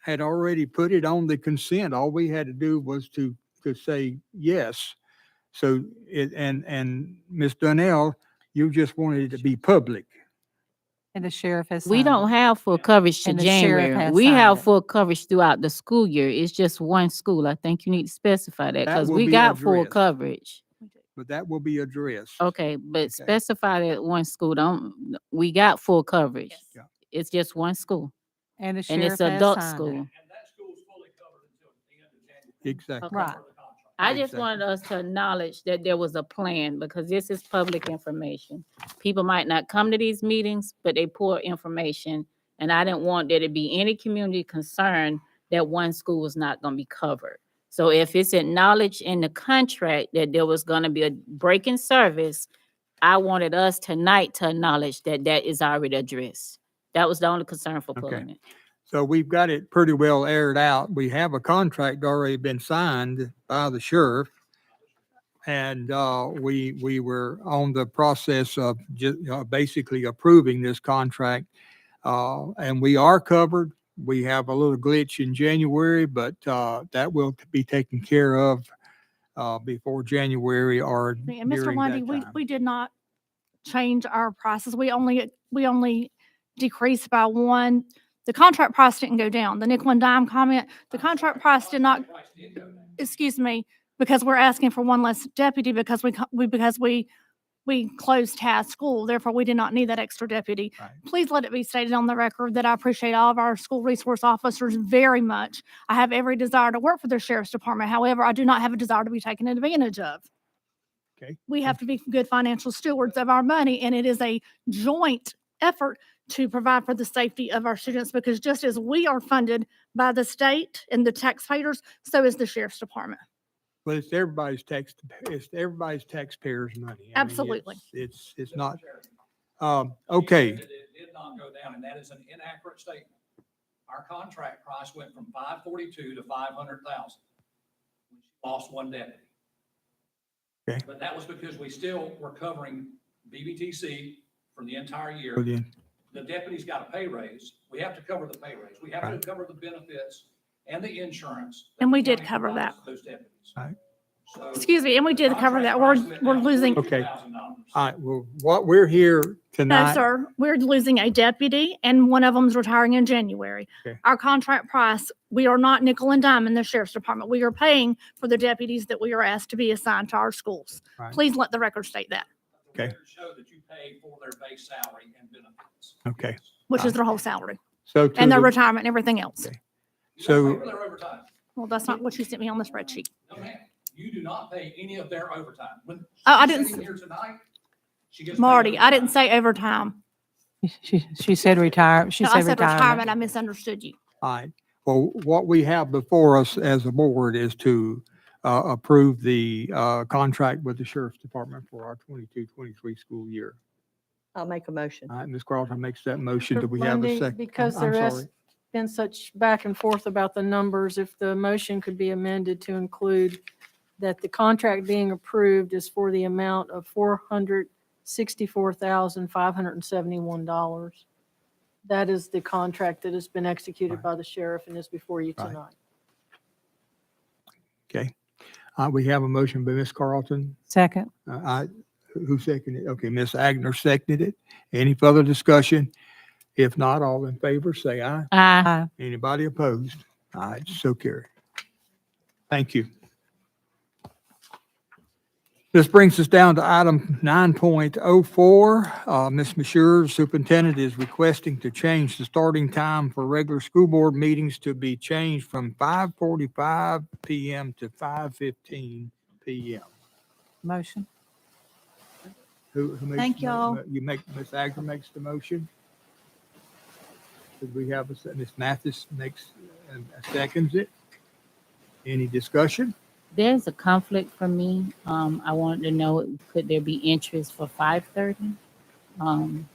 had already put it on the consent. All we had to do was to, to say yes. So it, and, and Ms. Donnell, you just wanted it to be public. And the sheriff has. We signed don't it. have full coverage to And the sheriff January. has We signed have it. full coverage throughout the school year. It's just one school. I think you need to specify that That because will we be got full addressed. coverage. But that will be addressed. Okay, but Okay. specify that one school. Don't, we got full coverage. Yes. Yeah. It's just one school And the and it's sheriff has adult signed it. school. Exactly. Right. I just wanted us to acknowledge that there was a plan because this is public information. People might not come to these meetings, but they pour information. And I didn't want there to be any community concern that one school was not gonna be covered. So if it's acknowledged in the contract that there was gonna be a break in service, I wanted us tonight to acknowledge that that is already addressed. That was the only concern for Okay. pulling it. So we've got it pretty well aired out. We have a contract already been signed by the sheriff. And uh, we, we were on the process of ju- uh, basically approving this contract. Uh, And we are covered. We have a little glitch in January, but uh, that will be taken care of uh, before January or And Mr. during Lundy, that we, time. we did not change our prices. We only, we only decreased by one. The contract price didn't go down. The nickel and dime comment, the contract price did not, excuse me, because we're asking for one less deputy because we, co- we, because we, we closed Tass School, therefore we did not need that extra deputy. Right. Please let it be stated on the record that I appreciate all of our school resource officers very much. I have every desire to work for the sheriff's department. However, I do not have a desire to be taken advantage of we Mm. have to be good financial stewards of our money, and it is a joint effort to provide for the safety of our students, because just as we are funded by the state and the taxpayers, so is the sheriff's department. But it's everybody's tax, it's everybody's taxpayers' money. I mean, Absolutely. it's- It's, it's not, um, okay, It did not go down, and that is an inaccurate statement. Our contract price went from five forty-two to five hundred thousand. Lost one deputy. Okay. But that was because we still were covering BBTC for the entire year. well then, The deputy's got a pay raise. We have to cover the pay raise. We have to cover the benefits and the insurance. that And we the did county cover provides that. Those deputies. Right. So Excuse me, and we did cover that. We're, contract price went we're down losing, Okay. $42,000. all right, well, what we're here no, tonight. sir, we're losing a deputy, and one of them's retiring in January. Okay. Our contract price, we are not nickel and dime in the sheriff's department. We are paying for the deputies that we are asked to be assigned to our schools. Right. Please let the record state that, Okay. records Show that you pay for their base salary and benefits. Okay, which Right. is their whole salary. so to And their the, retirement and everything else. Okay. You don't So- pay for their overtime. Well, that's not what you sent me on the spreadsheet. No, ma'am. You do not pay any of their overtime. When Oh, I she's didn't sitting Here tonight. she gets paid Marty, I didn't overtime. say overtime. She, she said retire, she No, I said said retirement. I retirement. misunderstood you. all right, well, what we have before us as a board is to, uh, approve the, uh, contract with the sheriff's department for our 22-23 school year. I'll make a motion. All right, Ms. Carlton makes that motion. Mr. Do we have a Lundy, second? Because I'm there has sorry. been such back and forth about the numbers, if the motion could be amended to include that the contract being approved is for the amount of four hundred sixty-four thousand, five hundred and seventy-one dollars. That is the contract that has been executed Right. by the sheriff and is before you Right. tonight. Uh, we have a motion by Ms. Carlton. Second, Uh, I, who seconded it? Okay, Ms. Agner seconded it. Any further discussion? If not, all in favor, say aye. Aye. aye. Anybody opposed? All right, so carried. Thank you. This brings us down to item 9.04. Uh, Ms. Mashur, Superintendent, is requesting to change the starting time for regular school board meetings to be changed from 5:45 PM to 5:15 PM. Motion. Who, who makes? Thank the mo- y'all. mo- You make, Ms. Agner makes the motion. Did we have, a se- Ms. Mathis makes, and seconds it. Any discussion? There's a conflict for me. Um, I wanted to know, could there be interest for five thirty? Um,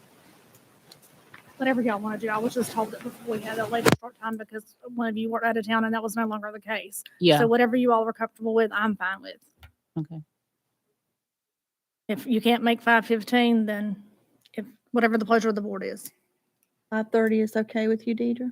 Whatever y'all want to do. I was just told that before we had a later start time because one of you were out of town and that was no longer the case. yeah, So whatever you all were comfortable with, I'm fine with. okay. If you can't make five fifteen, then if, whatever the pleasure of the board is. Five thirty is okay with you, Deidre?